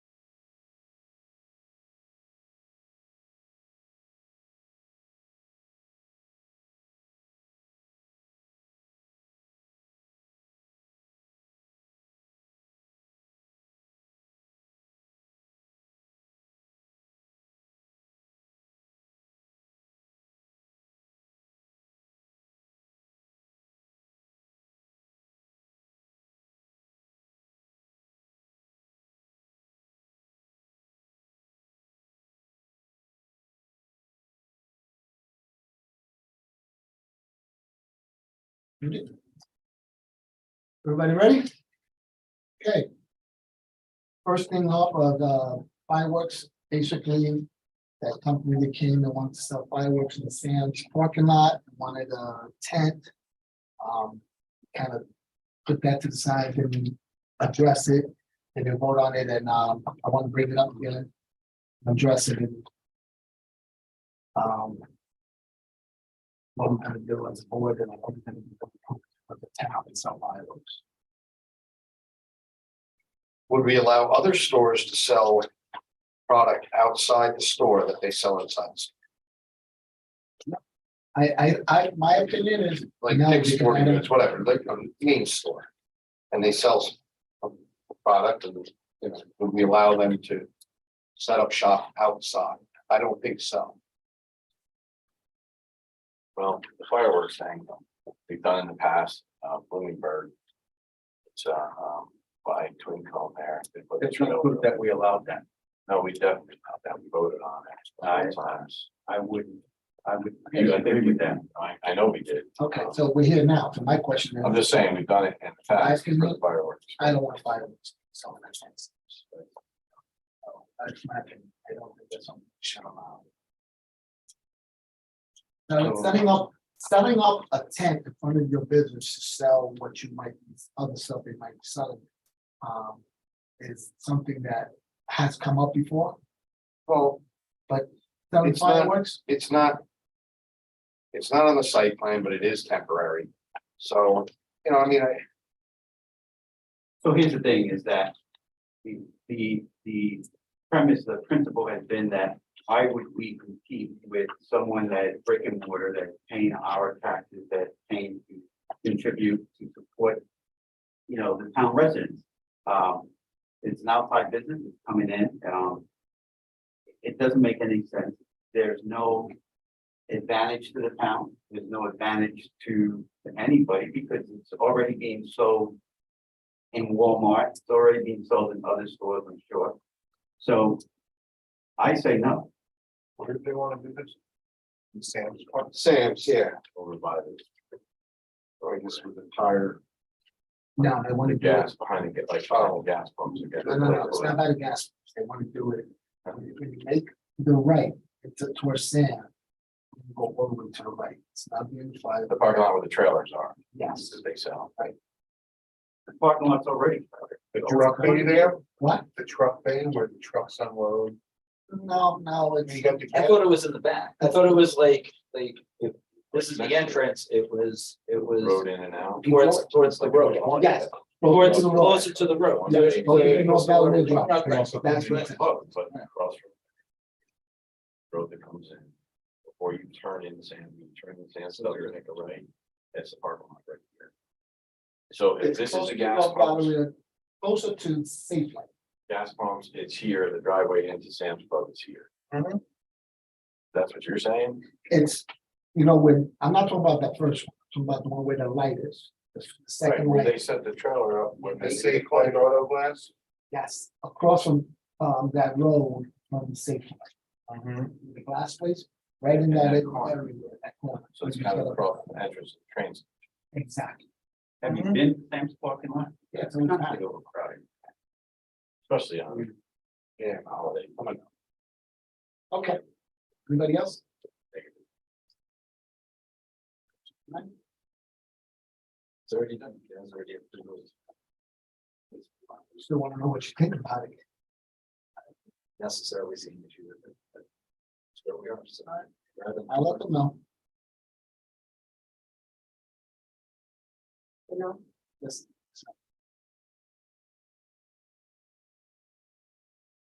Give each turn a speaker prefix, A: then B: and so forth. A: Everybody ready? Okay. First thing up, uh, the fireworks, basically, that company that came and wanted to sell fireworks in the Sam's parking lot, wanted a tent. Um, kind of put that to the side and address it, and then vote on it, and, um, I want to bring it up again. Address it. and, Um. What I'm gonna do as a board and what I'm gonna do of the town and sell fireworks.
B: Would we allow other stores to sell product outside the store that they sell inside? the store?
A: I, I, I, my opinion is,
B: Like
A: No,
B: Dick's
A: because
B: Sporting
A: I don't-
B: Goods, whatever, like a main store. And they sell some product and, you know, would we allow them to set up shop outside? I don't think so.
C: Well, the fireworks thing, we've done in the past, uh, Bloomingburg. It's, uh, um, by Twin Cone there. They put-
D: That's not proof that we allowed that.
C: No, we definitely, not that we voted on it.
D: I-
C: Nine times.
D: I wouldn't, I would.
C: You, I think we did. I, I know we did.
A: okay, so we're here now, so my question
C: I'm
A: is,
C: just saying, we've done it in the
A: I
C: past for
A: can-
C: the fireworks.
A: I don't want fireworks, so that sense. That's my opinion, uh, I don't think that's something we should allow. Now, it's setting up, setting up a tent in front of your business to sell what you might, other stuff they might be selling. Um, is something that has come up before,
B: Well,
A: selling
B: It's not-
A: fireworks?
B: it's not. It's not on the site plan, but it is temporary. So, you know, I mean, I,
D: So here's the thing is that the, the, the premise, the principle has been that why would we compete with someone that is brick and mortar that's paying our taxes, that's paying to contribute to support, you know, the town residents? Um, it's an outside business, it's coming in, um, it doesn't make any sense. There's no advantage to the town, there's no advantage to to anybody because it's already being sold in Walmart. It's already being sold in other stores, I'm sure. So I say no.
C: Where did they want to do this? Sam's Park.
B: Sam's, yeah,
C: Over by the. Or just with the tire,
A: No, they want to
C: the
A: do it
C: gas behind it, get like, oh, gas pumps again.
A: No, no, no, it's not about the gas, they wanna do it, when you make the right, it's towards sand. you Go over to the right, it's not being five,
C: The parking lot where the trailers are.
A: yes,
C: They sell.
D: The parking lot's already.
C: The
B: truck bay there?
A: what?
B: the truck bay where the trucks unload.
A: No, no, it's,
B: You got the,
E: I thought it was in the back. I thought it was like, like, if this is the entrance, it was, it was
C: Road in and out.
E: towards, towards the road.
A: Yes.
E: Towards,
A: Closer to the road.
E: closer to the road.
A: Yeah,
E: There's-
A: closer to
E: there's-
A: North Valley Road.
E: Okay.
A: that's
C: It's
A: right,
C: close, but across from the Road that comes in. Before you turn in sand, you turn in sand, so you're gonna go right. That's the parking lot right here. So if
A: it's
C: this is
A: closer
C: a
A: to
C: gas
A: North
C: pump,
A: Valley Road, Closer to safe light,
C: gas pumps, it's here, the driveway into Sam's Club is here.
A: Mhm.
C: That's what you're saying?
A: it's, you know, when, I'm not talking about that first, one. I'm talking about the one where the light is. The
C: Right,
A: second
C: where
A: light,
C: they set the trailer up when they.
B: the safe light auto glass.
A: yes, across from, um, that road from the safe light. the glass place, right in
C: In
A: that
C: that
A: area,
C: corner.
A: that corner.
C: So it's kind of across the entrance of the trains.
A: Exactly.
D: Have you been to Sam's parking lot?
A: Yeah, it's
D: It's
A: not
D: not
A: bad.
D: big overcrowding.
C: Especially on. Yeah, holiday.
A: Okay. Anybody else?
C: It's already done. You guys already have to do it.
A: Still want to know what you think about it.
E: Necessarily seeing issue with it. but That's where we are tonight. Rather than-
A: I'll let them know.
E: You know, this,